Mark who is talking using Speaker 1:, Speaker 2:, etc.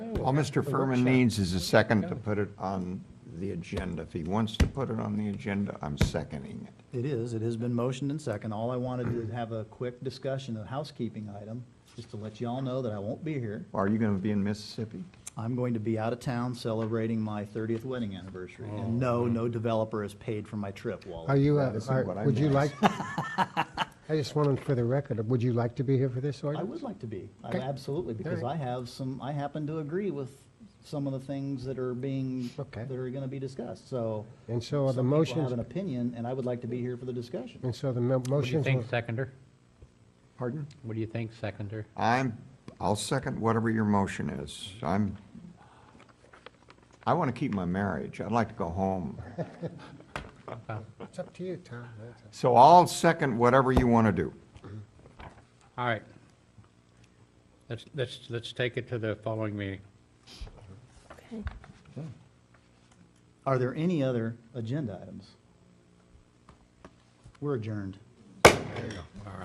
Speaker 1: All Mr. Furman needs is a second to put it on the agenda. If he wants to put it on the agenda, I'm seconding it.
Speaker 2: It is, it has been motioned and second. All I wanted to have a quick discussion, a housekeeping item, just to let you all know that I won't be here.
Speaker 1: Are you going to be in Mississippi?
Speaker 2: I'm going to be out of town celebrating my 30th wedding anniversary. And no, no developer has paid for my trip,
Speaker 3: Oh. Are
Speaker 2: Wally.
Speaker 3: you,
Speaker 1: That
Speaker 3: uh,
Speaker 1: isn't
Speaker 3: are-
Speaker 1: what I
Speaker 3: would you like,
Speaker 1: meant.
Speaker 3: I just wanted for the record, would you like to be here for this
Speaker 2: I
Speaker 3: ordinance?
Speaker 2: would like to be, I-
Speaker 3: Okay.
Speaker 2: absolutely, because I
Speaker 3: Alright.
Speaker 2: have some, I happen to agree with some of the things that are being,
Speaker 3: Okay.
Speaker 2: that are going to be discussed, so.
Speaker 3: And so are the
Speaker 2: some people have
Speaker 3: motions, Mm.
Speaker 2: an opinion, and I would like to be here for the discussion.
Speaker 3: and so the mo-
Speaker 4: What do you
Speaker 3: motions,
Speaker 4: think,
Speaker 3: will-
Speaker 4: seconder?
Speaker 1: Pardon?
Speaker 4: What do you think, seconder?
Speaker 1: I'm, I'll second whatever your motion is. I'm, I want to keep my marriage. I'd like to go home.
Speaker 3: it's up to you, Tom. That's up-
Speaker 1: So I'll second whatever you want to do.
Speaker 4: All right. Let's, let's, let's take it to the following meeting.
Speaker 2: Are there any other agenda items? We're adjourned.